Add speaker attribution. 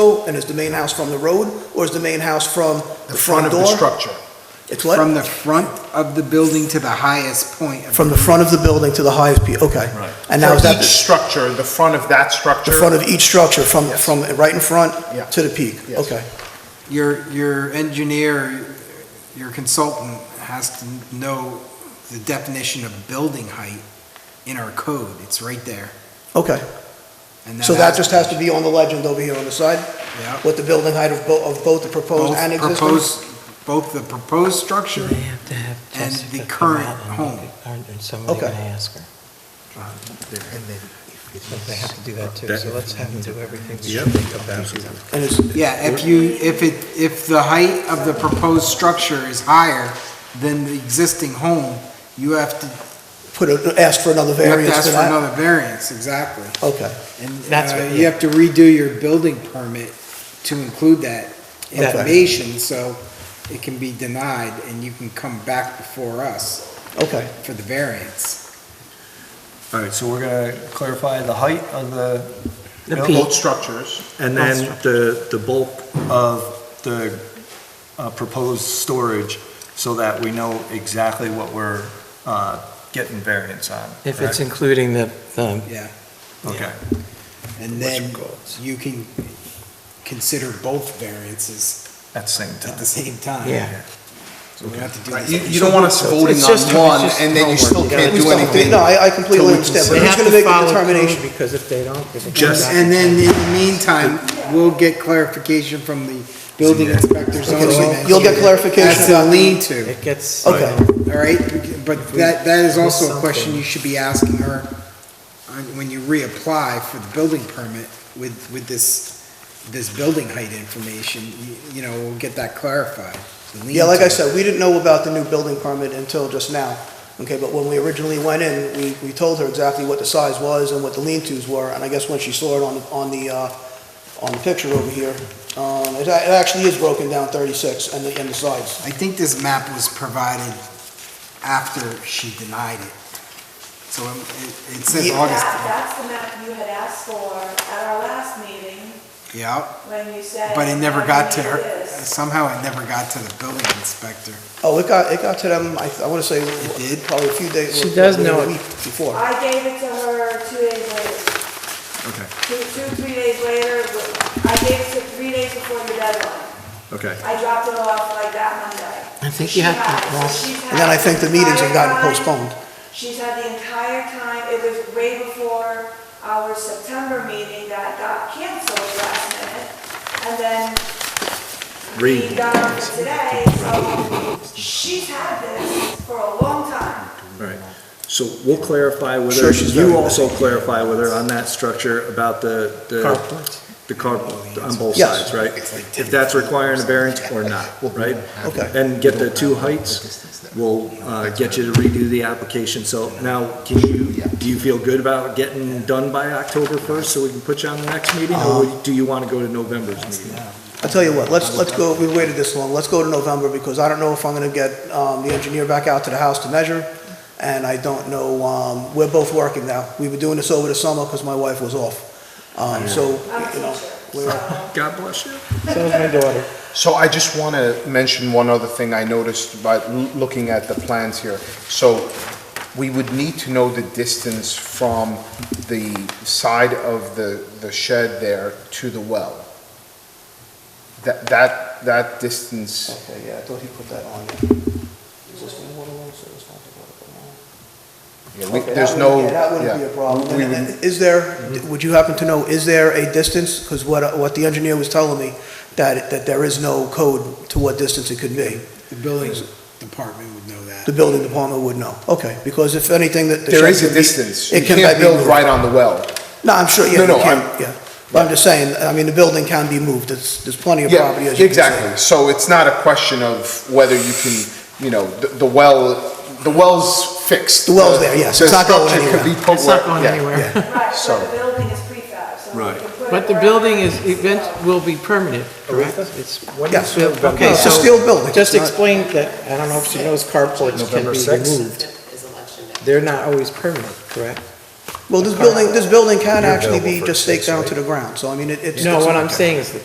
Speaker 1: and is the main house from the road, or is the main house from
Speaker 2: The
Speaker 1: the
Speaker 2: front
Speaker 1: front
Speaker 2: of the
Speaker 1: door?
Speaker 2: structure.
Speaker 1: It's
Speaker 3: From
Speaker 1: what?
Speaker 3: the front of the building to the highest point. of
Speaker 1: From the front of the building to the highest peak, okay.
Speaker 4: Right.
Speaker 1: And now
Speaker 2: For
Speaker 1: is that
Speaker 2: each structure, the front of that structure.
Speaker 1: the front of each structure, from,
Speaker 2: Yes.
Speaker 1: from right in front
Speaker 2: Yeah.
Speaker 1: to the peak?
Speaker 2: Yes.
Speaker 1: Okay,
Speaker 3: Your, your engineer, your consultant has to know the definition of building height in our code. It's right there.
Speaker 1: okay.
Speaker 3: And
Speaker 1: So that just has to be on the legend over here on the side,
Speaker 3: Yeah.
Speaker 1: what the building height of both, of both the proposed and
Speaker 3: Both
Speaker 1: existing?
Speaker 3: proposed, both the proposed structure,
Speaker 5: They have to have
Speaker 3: And the
Speaker 5: Jessica come
Speaker 3: current
Speaker 5: out and
Speaker 3: home.
Speaker 5: look at- Aren't somebody
Speaker 1: Okay.
Speaker 5: going to ask her? So They have to do that too, so let's have them do everything.
Speaker 4: Yep.
Speaker 1: And it's,
Speaker 3: yeah, if you, if it, if the height of the proposed structure is higher than the existing home, you have to,
Speaker 1: put, a- ask for another
Speaker 3: you have to
Speaker 1: variance
Speaker 3: ask
Speaker 1: for
Speaker 3: for
Speaker 1: that?
Speaker 3: another variance, exactly.
Speaker 1: Okay,
Speaker 3: And
Speaker 5: That's
Speaker 3: uh,
Speaker 5: what-
Speaker 3: you have to redo your building permit to include that
Speaker 1: Okay.
Speaker 3: information, so it can be denied, and you can come back before us
Speaker 1: okay.
Speaker 3: for the variance.
Speaker 4: All right, so we're gonna clarify the height of the,
Speaker 5: The
Speaker 2: Both structures.
Speaker 4: and then the, the bulk of the uh, proposed storage, so that we know exactly what we're uh, getting variance on.
Speaker 5: If it's
Speaker 4: correct?
Speaker 5: including the, the
Speaker 4: Okay,
Speaker 3: And then you can consider both variances
Speaker 4: at the same
Speaker 3: at
Speaker 4: time.
Speaker 3: the same time.
Speaker 5: Yeah.
Speaker 3: So we have to do
Speaker 2: Right,
Speaker 3: this.
Speaker 2: You, you don't want us voting
Speaker 5: It's
Speaker 2: on
Speaker 5: just- it's
Speaker 2: one
Speaker 5: just
Speaker 2: and then you still can't
Speaker 1: We
Speaker 2: do
Speaker 1: still-
Speaker 2: anything.
Speaker 1: No, I I completely understand, but
Speaker 5: They
Speaker 1: who's
Speaker 5: have
Speaker 1: going to
Speaker 5: to
Speaker 1: make the
Speaker 5: follow code
Speaker 1: determination?
Speaker 5: Because if they don't, if it comes
Speaker 4: Just-
Speaker 5: out.
Speaker 3: And then in the meantime, we'll get clarification from the building inspector
Speaker 1: Okay,
Speaker 3: zoning.
Speaker 1: so You'll get
Speaker 3: engineer
Speaker 1: clarification
Speaker 3: As to
Speaker 1: about
Speaker 3: lean to.
Speaker 5: It gets.
Speaker 1: Okay.
Speaker 5: uh,
Speaker 3: All right, but that, that is also a
Speaker 5: Something.
Speaker 3: question you should be asking her on- when you reapply for the building permit with, with this, this building height information, you- you know, we'll get that clarified. the lean
Speaker 1: Yeah, like I
Speaker 3: to.
Speaker 1: said, we didn't know about the new building permit until just now, okay? But when we originally went in, we, we told her exactly what the size was and what the lean-tos were, and I guess when she saw it on, the- on the, uh, on the picture over here, um, it, a- it actually is broken down 36 and the, and the sides.
Speaker 3: I think this map was provided after she denied it. So um, it it says
Speaker 1: Yeah.
Speaker 3: August,
Speaker 6: That- That's the map you had asked for at our last meeting,
Speaker 3: yeah,
Speaker 6: when you said.
Speaker 3: but it never
Speaker 6: "I
Speaker 3: got to
Speaker 6: need
Speaker 3: her,
Speaker 6: this."
Speaker 3: somehow it never got to the building inspector.
Speaker 1: Oh, it got, it got to them, I, I wanna say,
Speaker 3: did?
Speaker 1: probably a few days.
Speaker 5: She does know
Speaker 1: a
Speaker 5: it.
Speaker 1: week Before.
Speaker 6: I gave it to her two days later,
Speaker 4: Okay,
Speaker 6: two, two, three days later, I gave it to three days before the deadline.
Speaker 4: okay.
Speaker 6: I dropped it off like that Monday.
Speaker 5: I think
Speaker 6: She
Speaker 5: you have
Speaker 6: had it,
Speaker 5: to,
Speaker 6: so
Speaker 5: well,
Speaker 6: she's
Speaker 1: And then I
Speaker 6: had
Speaker 1: think
Speaker 6: the
Speaker 1: the meetings have gotten
Speaker 6: entire time.
Speaker 1: postponed.
Speaker 6: She's had the entire time, it was way before our September meeting that got canceled last minute. And then we got it today, so she's had this for a long time.
Speaker 4: All right, so we'll clarify with her,
Speaker 1: Sure, she's
Speaker 4: you
Speaker 1: very-
Speaker 4: also clarify with her on that structure about the, the.
Speaker 5: Carports.
Speaker 4: The carport, on both
Speaker 1: Yes.
Speaker 4: sides, right? If that's requiring a variance or not, right?
Speaker 1: Okay.
Speaker 4: And get the two heights, we'll, uh, get you to redo the application, so now, can you, do you feel good about getting done by October first, so we can put you on the next meeting?
Speaker 1: Uh-huh.
Speaker 4: Or do you wanna go to November's meeting?
Speaker 1: I'll tell you what, let's, let's go, we waited this long, let's go to November, because I don't know if I'm gonna get, um, the engineer back out to the house to measure, and I don't know, um, we're both working now. We were doing this over the summer, because my wife was off. Um, so,
Speaker 6: I'm a
Speaker 1: you know,
Speaker 6: teacher,
Speaker 1: we're,
Speaker 6: so.
Speaker 4: God bless you.
Speaker 5: So is my daughter.
Speaker 2: So I just want to mention one other thing I noticed by l- looking at the plans here. So we would need to know the distance from the side of the, the shed there to the well. That, that, that distance,
Speaker 1: okay, yeah, I thought he put that on. Existing water line, so it's not the water line.
Speaker 2: yeah, we-
Speaker 1: Okay,
Speaker 2: there's
Speaker 1: that wouldn't-
Speaker 2: no,
Speaker 1: Yeah, that wouldn't be a
Speaker 2: yeah.
Speaker 1: problem.
Speaker 2: We
Speaker 1: And then,
Speaker 2: would-
Speaker 1: is there, would you happen to know, is there a distance? Because what, what the engineer was telling me, that, that there is no code to what distance it could be.
Speaker 3: The building department would know that.
Speaker 1: The building department would know, okay, because if anything that. the
Speaker 2: There is
Speaker 1: shed
Speaker 2: a
Speaker 1: could be-
Speaker 2: distance. You
Speaker 1: It can
Speaker 2: can't
Speaker 1: be
Speaker 2: build
Speaker 1: moved.
Speaker 2: right on the well.
Speaker 1: No, I'm sure, yeah,
Speaker 2: No,
Speaker 1: you
Speaker 2: no,
Speaker 1: can,
Speaker 2: I'm-
Speaker 1: yeah. But I'm just saying, I mean, the building can be moved, there's, there's plenty of
Speaker 2: Yeah,
Speaker 1: property, as you can see.
Speaker 2: exactly. So it's not a question of whether you can, you know, the, the well, the well's fixed.
Speaker 1: The well's there, yes.
Speaker 2: The
Speaker 1: It's not going
Speaker 2: structure could
Speaker 1: anywhere.
Speaker 2: be put
Speaker 5: It's not
Speaker 2: where-
Speaker 5: going
Speaker 2: yeah.
Speaker 5: anywhere.
Speaker 6: Right,
Speaker 2: So-
Speaker 6: so the building is prefab, so. we
Speaker 4: Right.
Speaker 6: can put it
Speaker 5: But the
Speaker 6: wherever
Speaker 5: building
Speaker 6: we
Speaker 5: is,
Speaker 6: need to
Speaker 5: event
Speaker 6: go.
Speaker 5: will be permanent, correct? It's
Speaker 1: Yes.
Speaker 5: Okay,
Speaker 1: It's a
Speaker 5: so.
Speaker 1: steel building.
Speaker 5: Just
Speaker 1: It's not-
Speaker 5: explain that, I don't know if she knows carports can
Speaker 4: November
Speaker 5: be
Speaker 4: sixth?
Speaker 5: removed. They're not always permanent, correct?
Speaker 1: Well, this building, this building can actually be just staked down to the ground, so I mean, it- it's.
Speaker 5: No,
Speaker 1: it's-
Speaker 5: what I'm saying is that